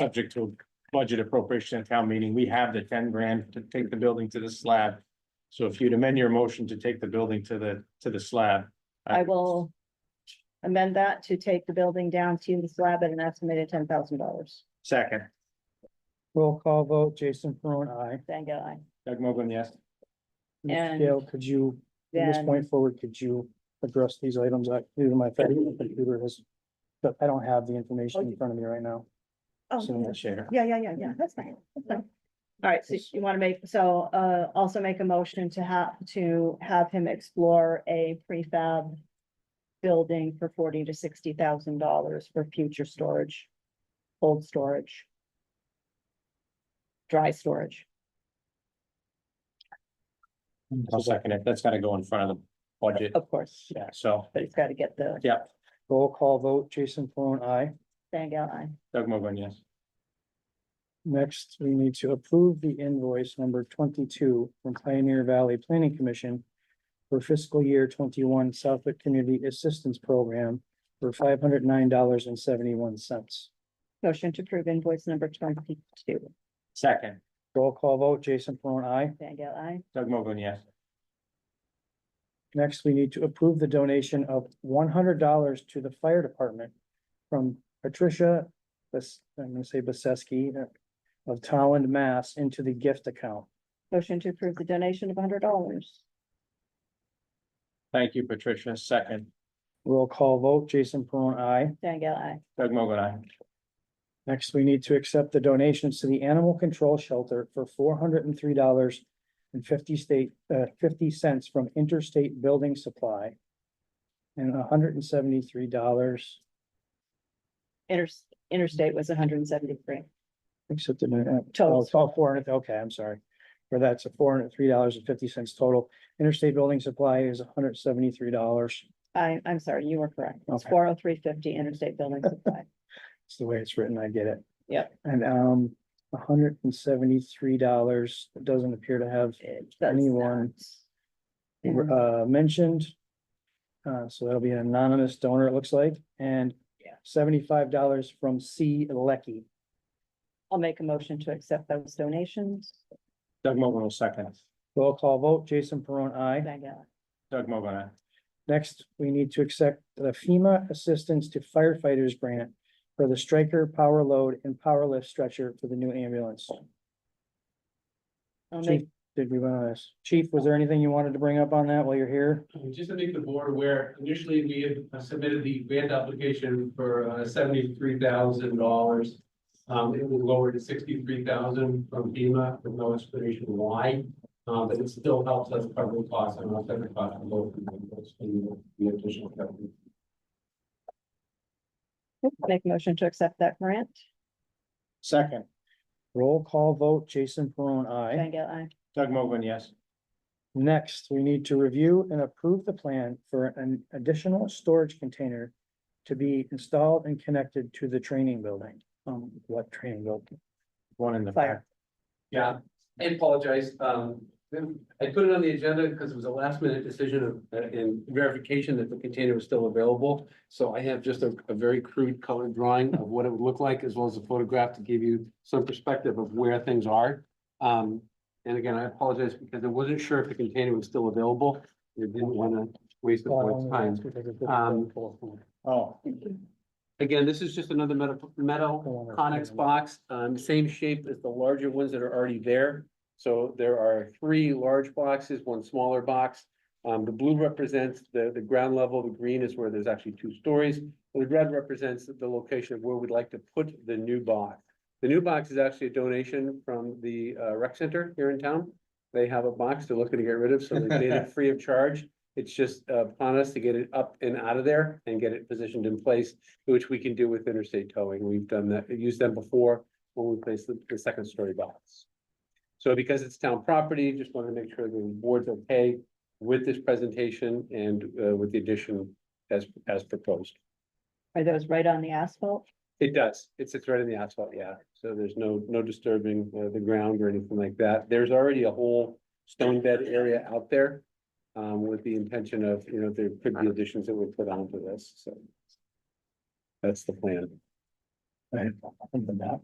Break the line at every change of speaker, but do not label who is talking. subject to budget appropriation at town meeting, we have the ten grand to take the building to the slab. So if you'd amend your motion to take the building to the, to the slab.
I will amend that to take the building down to the slab at an estimated ten thousand dollars.
Second,
Roll call vote, Jason Peron, I.
Thank I.
Doug Mogul, yes.
And-
Dale, could you, from this
Then-
point forward, could you address these items? I, due to my fact, the computer has, but I don't have the information in front of me right now.
Oh,
Soon share.
yeah, yeah, yeah, yeah, that's fine, that's fine. All right, so you want to make, so uh also make a motion to have, to have him explore a prefab building for forty to sixty thousand dollars for future storage, cold storage, dry storage.
I'll second it. That's gotta go in front of the budget.
Of course,
Yeah, so,
but it's got to get the
yeah,
Roll call vote, Jason Peron, I.
thing out.
Doug Mogul, yes.
Next, we need to approve the invoice number twenty-two from Pioneer Valley Planning Commission for fiscal year twenty-one Southwick Community Assistance Program for five hundred nine dollars and seventy-one cents.
Motion to approve invoice number twenty-two,
Second,
Roll call vote, Jason Peron, I.
thing out.
Doug Mogul, yes.
Next, we need to approve the donation of one hundred dollars to the fire department from Patricia, Bas- I'm gonna say Baseski uh, of Talland, Mass, into the gift account.
Motion to approve the donation of hundred dollars.
Thank you, Patricia. Second,
Roll call vote, Jason Peron, I.
Thank I.
Doug Mogul, I.
Next, we need to accept the donations to the Animal Control Shelter for four hundred and three dollars and fifty state, uh, fifty cents from Interstate Building Supply. And hundred and seventy-three dollars,
Inter, interstate was hundred and seventy-three.
except in, uh,
Total.
oh, it's all four hundred, okay, I'm sorry. Where that's a four hundred and three dollars and fifty cents total. Interstate Building Supply is hundred and seventy-three dollars.
I, I'm sorry, you were correct. It's
Okay.
four oh three fifty interstate building supply.
It's the way it's written, I get it.
Yep.
And, um, hundred and seventy-three dollars, it doesn't appear to have
It does
Anyone.
not.
were, uh, mentioned. Uh, so that'll be an anonymous donor, it looks like, and
Yeah.
seventy-five dollars from C Lecky.
I'll make a motion to accept those donations.
Doug Mogul, will second.
Roll call vote, Jason Peron, I.
Thank God.
Doug Mogul, I.
Next, we need to accept the FEMA Assistance to Firefighters Grant for the Striker Power Load and Power Lift Stretcher for the new ambulance.
I'll
Chief,
make,
did we run on this? Chief, was there anything you wanted to bring up on that while you're here?
Um, Just to make the board aware, initially we had uh, submitted the grant application for uh, seventy-three thousand dollars. Um, it was lowered to sixty-three thousand from FEMA, with no explanation why. Um, but it still helps us cover the costs and offset the cost of both. of those and The additional coverage.
make a motion to accept that grant.
Second,
Roll call vote, Jason Peron, I.
Thank I.
Doug Mogul, yes.
Next, we need to review and approve the plan for an additional storage container to be installed and connected to the training building. Um, what training building?
One in the
Fire.
back.
Yeah, I apologize. Um, I put it on the agenda because it was a last minute decision of, uh, and verification that the container was still available. So I have just a, a very crude colored drawing of what it would look like, as well as a photograph to give you some perspective of where things are. Um, and again, I apologize because I wasn't sure if the container was still available. I didn't want to waste the board's time. Um,
Oh,
Again, this is just another metal, metal Conex box, um, same shape as the larger ones that are already there. So there are three large boxes, one smaller box. Um, the blue represents the, the ground level, the green is where there's actually two stories. The red represents the location of where we'd like to put the new box. The new box is actually a donation from the, uh, rec center here in town. They have a box they're looking to get rid of, so they made it free of charge. It's just uh, upon us to get it up and out of there and get it positioned in place which we can do with interstate towing. We've done that, used them before when we placed the, the second story box. So because it's town property, just wanted to make sure the board's okay with this presentation and, uh, with the addition as, as proposed.
Are those right on the asphalt?
It does. It sits right in the asphalt, yeah. So there's no, no disturbing uh, the ground or anything like that. There's already a whole stone bed area out there. Um, with the intention of, you know, there could be additions that we put onto this, so. That's the plan.
Right, on the map.